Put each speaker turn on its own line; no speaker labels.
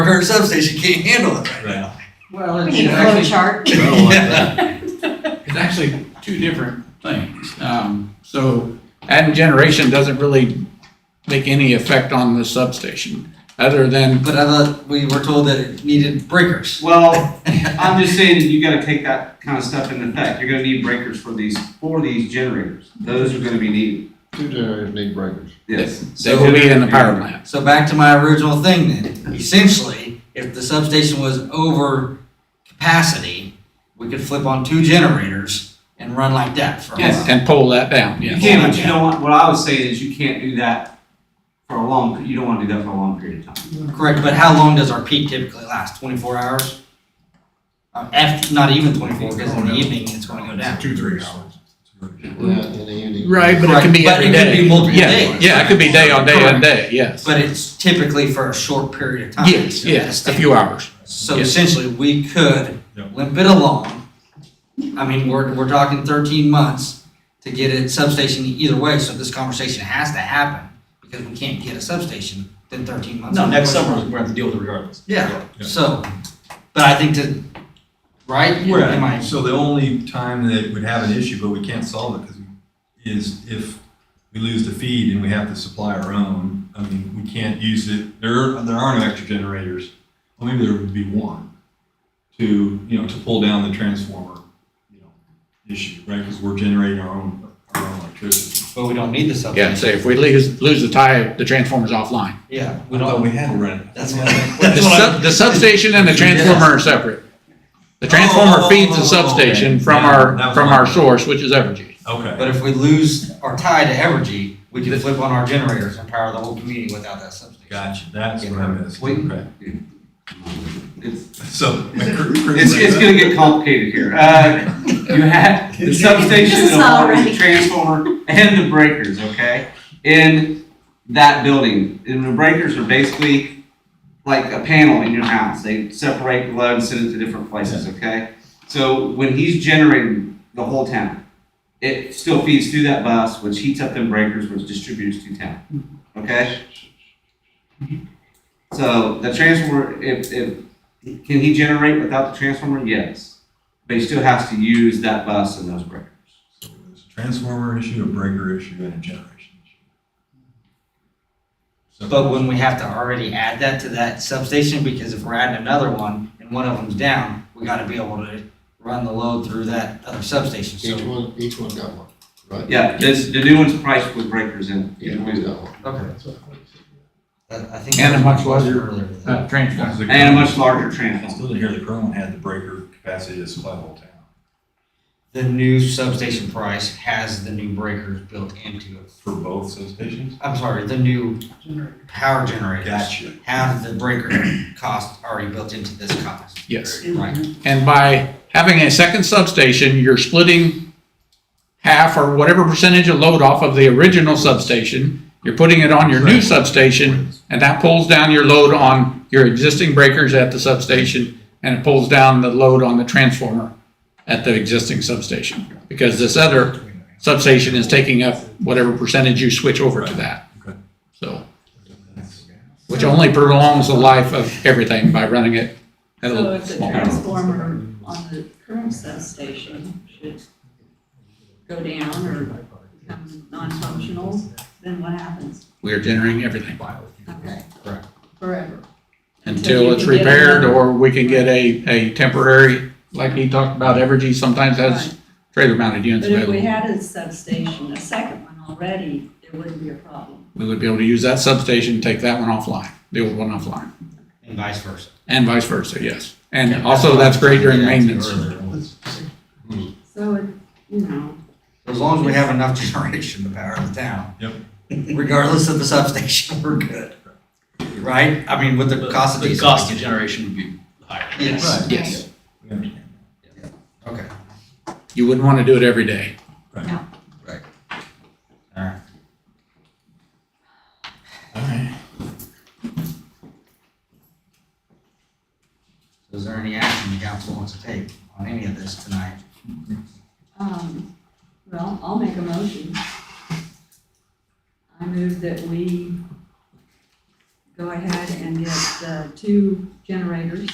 current substation can't handle it right now.
Well,
We
it's
need a flow
actually,
chart.
I don't like that.
it's actually two different things. Um, so adding generation doesn't really make any effect on the substation, other than,
But I thought we were told that it needed breakers.
Well, I'm just saying that you gotta take that kind of stuff into effect. You're gonna need breakers for these, for these generators. Those are gonna be needed.
Two generators need breakers.
Yes.
they will be in the power plant.
So back to my original thing then. Essentially, if the substation was over capacity, we could flip on two generators and run like that for a
Yes.
while.
And pull that down,
You
yeah.
can't, but you don't want, what I was saying is you can't do that for a long, you don't wanna do that for a long period of time.
Correct, but how long does our peak typically last? Twenty-four hours? Uh, F, not even twenty-four, because in the evening, it's gonna go down.
Two, three hours.
Yeah, in the evening.
Right, but it can be
But
every
it
day.
could be multiple
Yeah,
days.
Yeah, it could be day on day on day, yes.
But it's typically for a short period of time.
Yes, yes, a few hours.
So
Yes.
essentially, we could
Yeah.
limp it along. I mean, we're, we're talking thirteen months to get a substation either way, so this conversation has to happen because we can't get a substation in thirteen months.
No, next summer, we're gonna have to deal with it regardless.
Yeah,
Yeah.
so, but I think to, right? Am I-
So the only time that it would have an issue, but we can't solve it, 'cause we- is if we lose the feed and we have to supply our own. I mean, we can't use it, there, are- there are no extra generators. Well, maybe there would be one to, you know, to pull down the transformer, you know, issue, right? Because we're generating our own, our own electricity.
But we don't need the substation.
Yeah, so if we lose, lose the tie, the transformer's offline.
Yeah, we
I thought
don't,
we had rent.
that's what, I-
The
that's what I-
sub, the substation and the transformer are separate. The
Oh,
transformer
oh,
feeds
oh, oh,
the substation
okay.
from
Yeah,
our,
that was
from
my-
our source, which is Evergy.
Okay.
but if we lose our tie to Evergy, we can flip on our generators and power the whole community without that substation.
Gotcha, that's what I missed.
Wait.
Okay.
It's,
So.
it's, it's gonna get complicated here. Uh, you have the substation,
This
the
is not
water, the
right.
transformer, and the breakers, okay? In that building, and the breakers are basically like a panel in your house. They separate the load and send it to different places, okay? So when he's generating the whole town, it still feeds through that bus, which heats up them breakers, which distributes to town,
Mm-hmm.
okay? So the transformer, if, if can he generate without the transformer? Yes. But he still has to use that bus and those breakers.
So there's a transformer issue, a breaker issue, and a generation issue. So-
But when we have to already add that to that substation, because if we're adding another one and one of them's down, we gotta be able to run the load through that other substation,
Each
so.
one, each one got one, right?
Yeah, this, the new one's priced with breakers in.
Each one got one.
Okay. I I think.
And a much larger,
Earlier.
Uh, transformer.
That's the-
And a much larger
I
transformer.
still didn't hear the Crown had the breaker capacity to supply the whole town.
The new substation price has the new breakers built into it.
For both substations?
I'm sorry, the new power generators
Gotcha.
have the breaker cost already built into this cost.
Yes.
Right.
And by having a second substation, you're splitting half or whatever percentage of load off of the original substation. You're putting it on your new
Right.
substation, and that pulls down your load on your existing breakers at the substation, and it pulls down the load on the transformer at the existing substation. Because this other substation is taking up whatever percentage you switch over to that.
Okay.
So, which only prolongs the life of everything by running it at
So
a
if the
small.
transformer on the current substation should go down or become non-functional, then what happens?
We are generating everything
Okay.
Correct.
Forever.
until it's
Until you can get
repaired
another-
or we can get a, a temporary, like he talked about, Evergy sometimes has
Right.
trailer mounted units
But if we
available.
had a substation, a second one already, there wouldn't be a problem.
We would be able to use that substation, take that one offline, the old one offline,
And vice versa.
and vice versa, yes. And also, that's great during
Yeah,
maintenance.
earlier.
So, it- you know,
As long as we have enough generation to power the town.
Yep.
Regardless of the substation, we're good. Right? I mean, with the cost of
The
diesel.
cost of generation would be higher.
Yes.
Yes,
We understand.
Okay.
you wouldn't want to do it every day.
All right.
So Is there any action the council wants to take on any of this tonight?
um, well, I'll make a motion. I move that we go ahead and get uh, two generators